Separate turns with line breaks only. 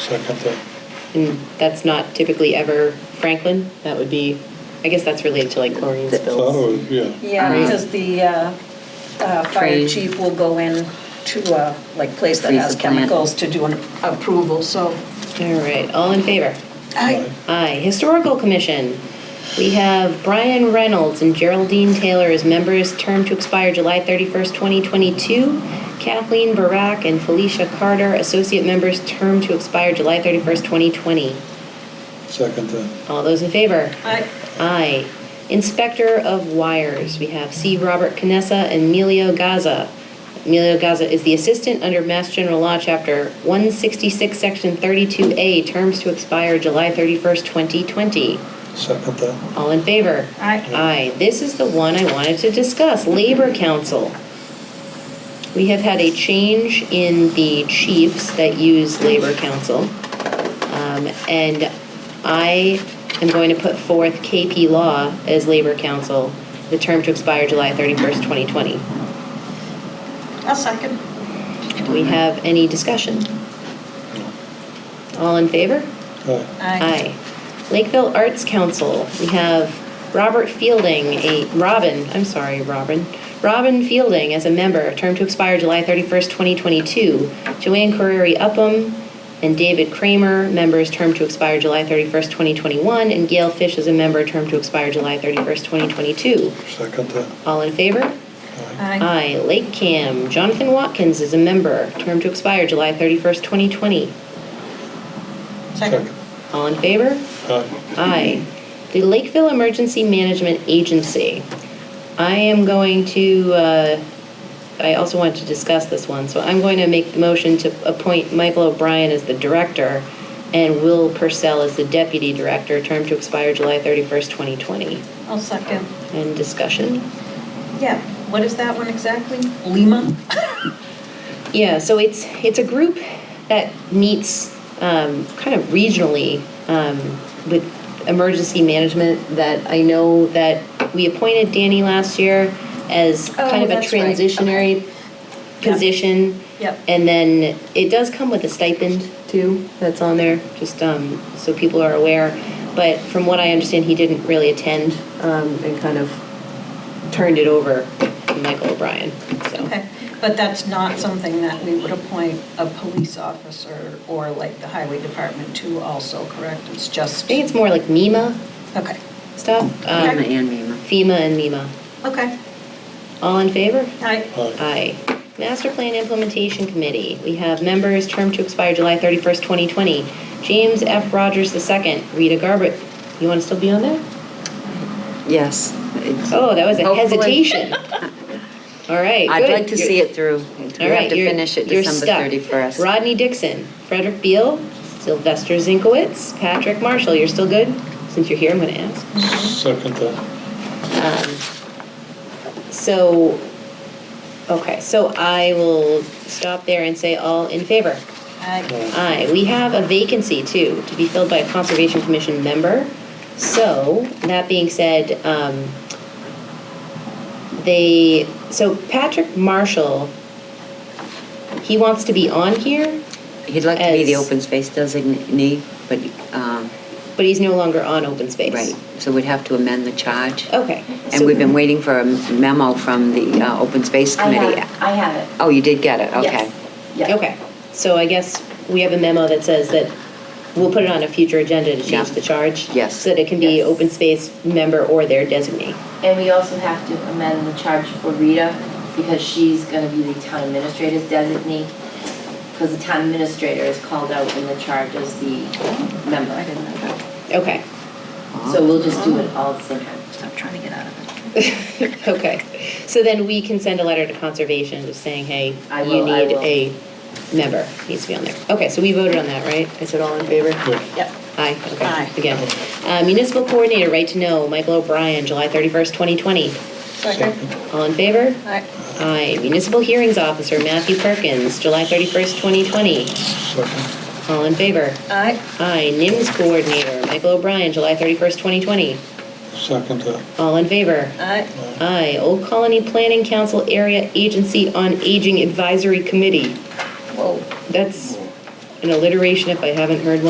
second that.
And that's not typically ever Franklin. That would be, I guess that's related to like chlorine
Thought it
spills.
was, yeah.
Yeah,
Right.
because the uh, uh, fire
Trade.
chief will go in to a, like, place that
Freeze
has
the plant.
chemicals to do an approval, so.
All right, all in favor?
I,
Aye. Historical Commission. We have Brian Reynolds and Geraldine Taylor as members, term to expire July 31st, 2022. Kathleen Barak and Felicia Carter, associate members, term to expire July 31st, 2020.
Second that.
All those in favor?
I,
Aye. Inspector of Wires, we have C. Robert Canessa and Emilio Gaza. Emilio Gaza is the assistant under Mass General Law, Chapter 166, Section 32A, terms to expire July 31st, 2020.
Second that.
All in favor?
Aye.
Aye. This is the one I wanted to discuss, Labor Council. We have had a change in the chiefs that use Labor Council. Um, And I am going to put forth KP Law as Labor Council, the term to expire July 31st, 2020.
I'll second.
Do we have any discussion?
No.
All in favor?
Aye.
Aye. Lakeville Arts Council, we have Robert Fielding, a, Robin, I'm sorry, Robin, Robin Fielding as a member, term to expire July 31st, 2022. Joanne Carreri Upham and David Kramer, members, term to expire July 31st, 2021. And Gail Fish as a member, term to expire July 31st, 2022.
Second that.
All in favor?
Aye.
Aye.
Aye. Lake Cam, Jonathan Watkins is a member, term to expire July 31st, 2020.
Second.
All in favor?
Aye.
Aye. The Lakeville Emergency Management Agency. I am going to, uh, I also wanted to discuss this one, so I'm going to make the motion to appoint Michael O'Brien as the director and Will Purcell as the deputy director, term to expire July 31st, 2020.
I'll second.
And discussion?
Yeah, what is that one exactly? Lima?
Yeah, so it's, it's a group that meets um, kind of regionally um, with emergency management that I know that we appointed Danny last year as
Oh,
kind of a
that's right, okay.
transitionary
Yep.
position.
Yep.
And then it does come with a stipend too, that's on there, just um, so people are aware. But from what I understand, he didn't really attend um, and kind of turned it over to Michael O'Brien, so.
Okay, but that's not something that we would appoint a police officer or like the highway department to also, correct? It's
I
just,
think it's more like MEMA
okay,
stuff.
Emma
Um,
and Mima.
FEMA and MEMA.
okay.
All in favor?
Aye.
Aye.
Aye. Master Plan Implementation Committee. We have members, term to expire July 31st, 2020. James F. Rogers II, Rita Garbutt. You want to still be on there?
Yes. it's-
Oh, that was a
Hopefully.
hesitation. All right,
I'd
good.
like to see it through. We
All right,
have to
you're-
finish it
you're
December
stuck.
31st.
Rodney Dixon, Frederick Beal, Sylvester Zinkowitz, Patrick Marshall. You're still good? Since you're here, I'm going to ask.
Second that.
Um, So, okay, so I will stop there and say all in favor.
Aye.
Aye, we have a vacancy too, to be filled by a Conservation Commission member. So, that being said, um, they, so Patrick Marshall, he wants to be on here,
He'd like to be the
As-
open space designee, but, um,
but he's no longer on open space.
right, so we'd have to amend the charge.
Okay. Oh, so-
And we've been waiting for a memo from the uh, Open Space
I have
Committee.
it. I have it.
Oh, you did get it, okay.
Yes. Yeah.
Okay, so I guess we have a memo that says that we'll put it on a future agenda to
Yeah.
change the charge?
Yes.
So that it can be
Yes.
open space member or their designee?
And we also have to amend the charge for Rita because she's gonna be the town administrator's designee. Because the town administrator is called out in the charge as the member.
Okay,
So we'll just do it all at the same time.
Stop trying to get out of it.
okay. So then we can send a letter to conservation just saying, hey,
I
you
will, I
need
will.
a member, needs to be on there. Okay, so we voted on that, right? Is it all in favor?
Yeah.
Yep.
Aye,
Aye.
okay, again. Uh, Municipal Coordinator, Right to Know, Michael O'Brien, July 31st, 2020.
Second.
All in favor?
Aye.
Aye. Municipal Hearings Officer, Matthew Perkins, July 31st, 2020.
Second.
All in favor?
Aye.
Aye. NIMS Coordinator, Michael O'Brien, July 31st, 2020.
Second that.
All in favor?
Aye.
Aye. Old Colony Planning Council Area Agency on Aging Advisory Committee.
Whoa.
That's an alliteration if I haven't heard one.